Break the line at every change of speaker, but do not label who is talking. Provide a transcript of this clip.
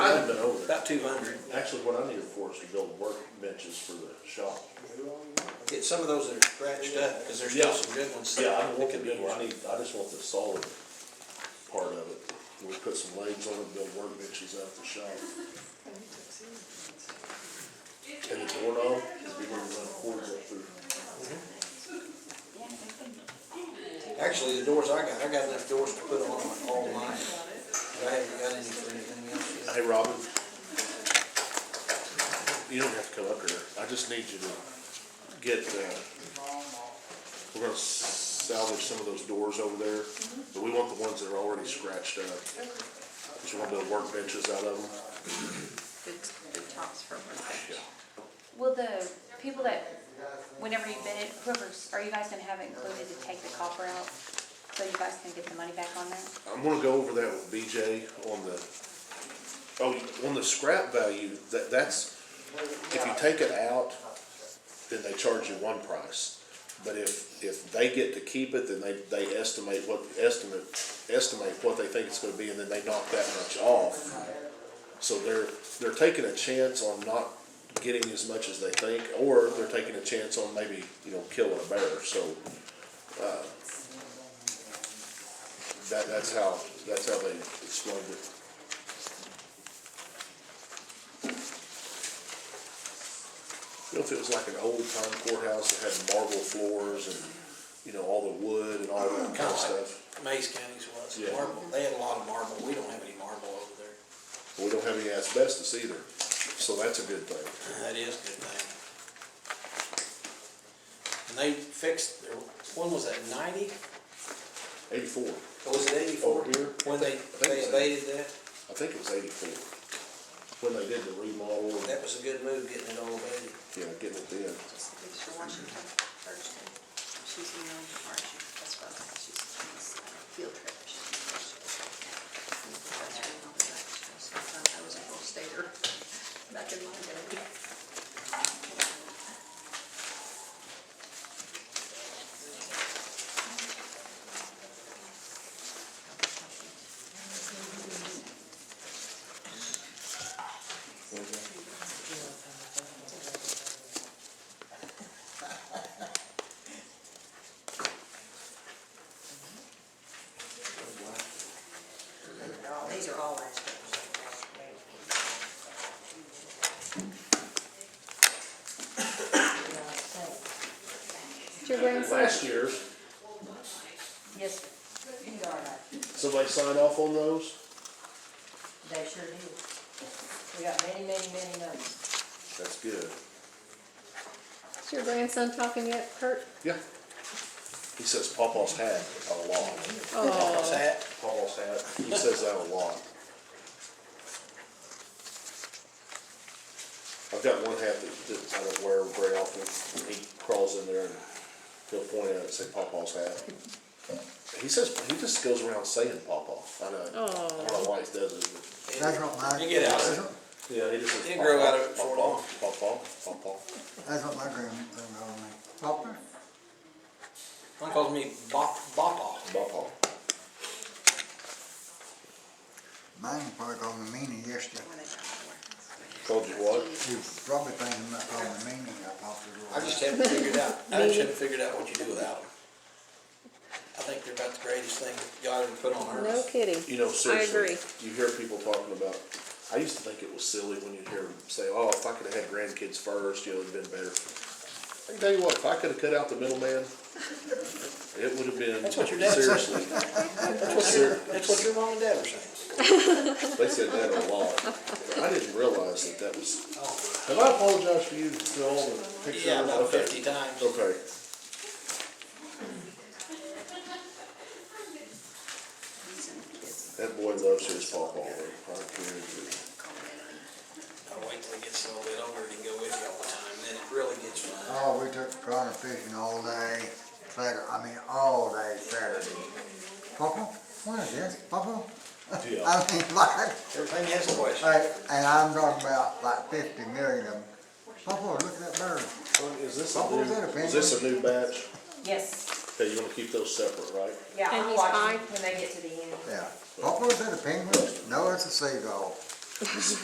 about two hundred.
Actually, what I need it for is to build workbenches for the shop.
Get some of those that are scratched up, cause there's still
Yeah.
some good ones.
Yeah, I'm
that
looking
could be
at, I
used.
need, I just want the solid part of it. We put some lanes on it, build workbenches out the shop. And the doorknob, because we want to run cords up through.
Actually, the doors I got, I got enough doors to put on all mine. But I haven't got any for anything else yet.
Hey, Robin. You don't have to come up here. I just need you to get, uh, we're gonna salvage some of those doors over there, but we want the ones that are already scratched up. Just want to build workbenches out of them.
the, the tops for workbench.
Will the people that, whenever you bid it, whoever's, are you guys gonna have it included to take the copper out? So you guys can get the money back on that?
I'm gonna go over that with BJ on the, oh, on the scrap value, that, that's, if you take it out, then they charge you one price. But if, if they get to keep it, then they, they estimate what, estimate, estimate what they think it's gonna be, and then they knock that much off. So they're, they're taking a chance on not getting as much as they think, or they're taking a chance on maybe, you know, killing a bear, so. uh, That, that's how, that's how they explained it. You know, if it was like an old time courthouse that had marble floors and, you know, all the wood and all that kind of stuff.
Mays County's was
Yeah.
marble. They had a lot of marble. We don't have any marble over there.
We don't have any asbestos either, so that's a good thing.
That is a good thing. And they fixed, their- when was that, ninety?
Eighty-four,
Was it eighty-four?
Over here?
When they,
think
they
so.
abated that?
I think it was eighty-four, when they did the remodel and,
That was a good move, getting it all abated.
you know, getting it then.
Just the picture Washington Thursday. She's emailing to Marcia, that's why she's on this uh, field trip. She's in Marcia. And that's where I'm at, so sometimes I was a whole stater back in my day. These are all aspects.
Is your grandson,
Last year,
Yes, sir. you are right.
somebody sign off on those?
They sure do. We got many, many, many numbers.
That's good.
is your grandson talking yet, Kurt?
Yeah. He says Papa's hat a lot.
What's that?
Paul's hat. He says that a lot. I've got one hat that, that I don't wear very often, and he crawls in there and he'll point at it and say Papa's hat. He says, he just goes around saying Papa, I know, I don't know why he does it, but.
It-
That's what my.
You get out of it.
that's what-
Yeah, he just says.
Didn't grow
"Pawpaw,
out of it for
pawpaw,
long."
Pawpaw, pawpaw.
That's what my grandmother called me. Popper?
One calls me Bop, Boppa.
Pawpaw.
Mine probably called me meanie yesterday.
When they got the warehouse.
Called you what?
You probably thinking about calling me meanie, I popped it
I just haven't figured out, I just haven't figured out what you do without them. I think they're about the greatest thing God ever put on
No
earth.
kidding.
You know, seriously,
agree.
you hear people talking about, I used to think it was silly when you'd hear them say, oh, if I could've had grandkids first, you know, it'd've been better. I can tell you what, if I could've cut out the middleman, it would've been,
That's what your dad said.
seriously. ser-
That's what your mom and dad were saying.
They said that a lot. I didn't realize that that was, have I apologized for you to all the pictures?
Yeah, about
Okay.
fifty times.
Okay. That boy loves his pawpaw, I guarantee it.
I'll wait till it gets a little bit older to go with you all the time, then it really gets fun.
Oh, we took crawler fishing all day Saturday, I mean, all day Saturday. Popper? What is this? Popper?
Yeah.
I mean, like,
Everything has a question.
like, and I'm talking about like fifty million of them. Popper, look at that bird.
Is this a
What
new,
was that, a
is this a new batch?
Yes,
Okay, you wanna keep those separate, right?
yeah,
And
I'll
he's
watch
fine?
them when they get to the end.
Yeah. Popper, is that a penguin? No, it's a seagull.